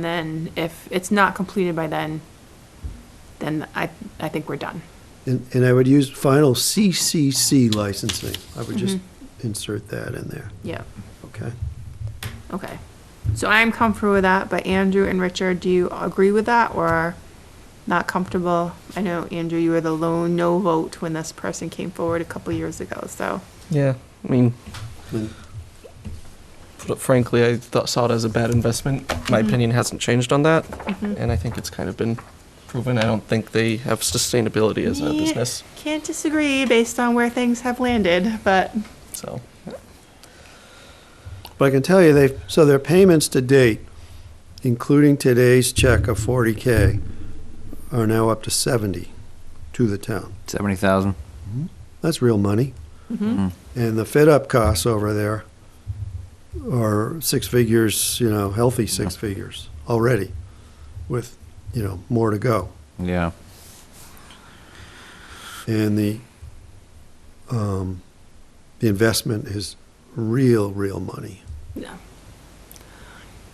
And then if it's not completed by then, then I, I think we're done. And, and I would use final CCC licensing. I would just insert that in there, Yeah, okay? okay. So I'm comfortable with that, but Andrew and Richard, do you agree with that or not comfortable? I know, Andrew, you were the lone no vote when this person came forward a couple years ago, so. Yeah, I mean, And fr- frankly, I thought saw it as a bad investment. My Mhm. opinion hasn't changed on that, mhm. and I think it's kind of been proven. I don't think they have sustainability as a Yeah. business. Can't disagree based on where things have landed, but So, But I can tell you, they've, so their payments to date, including today's check of forty K, are now up to seventy to the town. Seventy thousand. That's real money. Mm-hmm. And the fit-up costs over there are six figures, you know, healthy six figures already, with, you know, more to go. Yeah. and the um, the investment is real, real money. Yeah.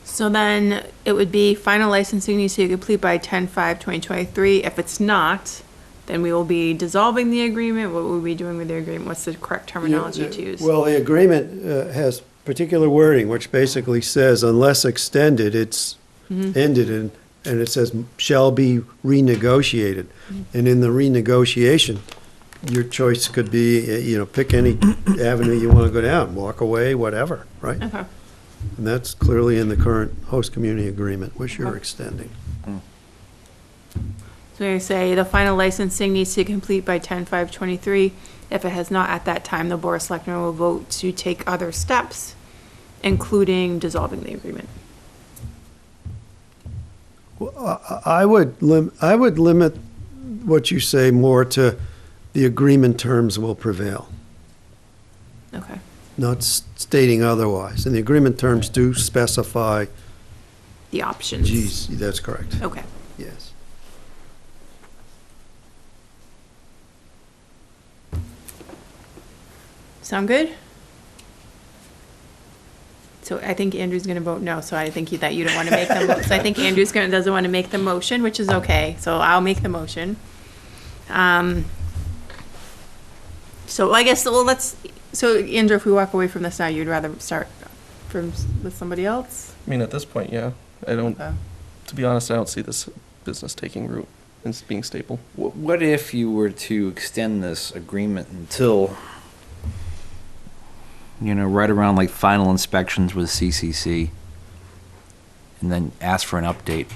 So then it would be final licensing needs to be complete by 10-5-2023. If it's not, then we will be dissolving the agreement. What will we be doing with the agreement? What's the correct terminology to use? Well, the agreement uh, has particular wording, which basically says unless extended, it's Mm-hmm. ended, and and it says shall be renegotiated. Mm-hmm. And in the renegotiation, your choice could be, uh, you know, pick any avenue you want to go down, walk away, whatever, right? Okay, And that's clearly in the current host community agreement, which you're extending. so you say the final licensing needs to be complete by 10-5-23. If it has not at that time, the board of selectmen will vote to take other steps, including dissolving the agreement. Well, I- I I would lim, I would limit what you say more to the agreement terms will prevail, Okay, not s- stating otherwise. And the agreement terms do specify, the options. geez, that's correct, Okay. yes. Sound good? So I think Andrew's gonna vote no, so I think you- that you don't wanna make the, mo- so I think Andrew's gonna, doesn't wanna make the motion, which is okay, so I'll make the motion. Um, so I guess, well, let's, so Andrew, if we walk away from this now, you'd rather start from, s- with somebody else? I mean, at this point, yeah, I don't. Uh, Okay. To be honest, I don't see this business taking root and s- being stable. What if you were to extend this agreement until, you know, right around like final inspections with CCC, and then ask for an update?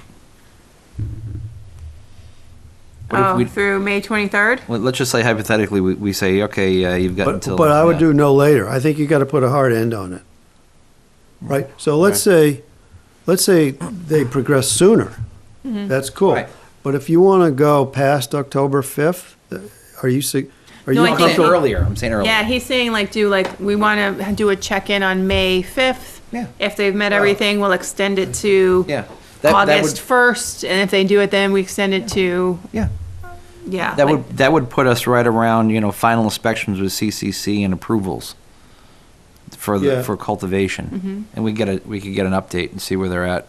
What if Oh, we- through May twenty-third? Let- Let's just say hypothetically, we, we say, okay, uh, you've got But, until. but I would yeah. do no later. I think you got to put a hard end on it. Right? So let's say, let's say they progress sooner. Mm-hmm. That's cool. Right. But if you want to go past October 5th, uh, are you, sig- are No, you I I'm saying think- comfortable? earlier. I'm saying earlier. Yeah, he's saying like, do like, we wanna do a check-in on May fifth. Yeah. If they've met everything, we'll extend it to. Yeah. That, that August would, first, and if they do it, then we extend it to, yeah. yeah. That like- would, that would put us right around, you know, final inspections with CCC and approvals for, Yeah. the for cultivation. And we get a, we could get an update and see where they're at.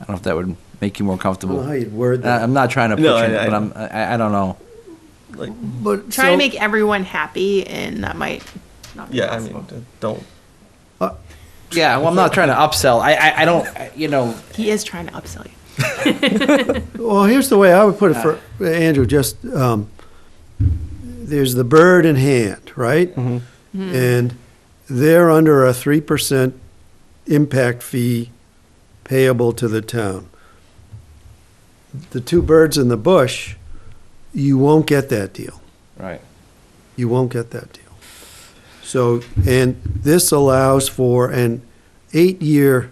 I don't know if that would make you more I don't know how comfortable. you'd word I- that. I'm not trying to push No, it, I- I- but I'm, I, I don't know. Like, But Try to so- make everyone happy, and that might not be yeah, I possible. mean, I don't. Yeah, well, I'm not trying to upsell. I, I, I don't, I- you know, He is trying to upsell you. Well, here's the way I would put it for Andrew, just, um, there's the bird in hand, right? And they're under a three percent impact fee payable to the town. The two birds in the bush, you won't get that deal. right. You won't get that deal. So, and this allows for an eight-year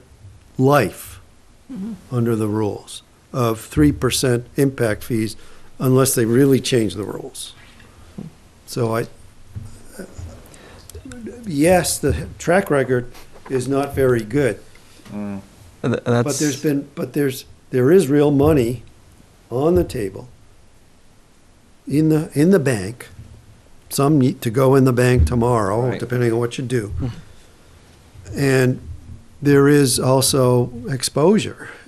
life under the rules of three percent impact fees unless they really change the rules. So I, yes, the track record is not very good, and th- That's, but there's been, but there's, there is real money on the table in the, in the bank. Some need to go in the bank tomorrow, Right. depending on what you do. And there is also exposure.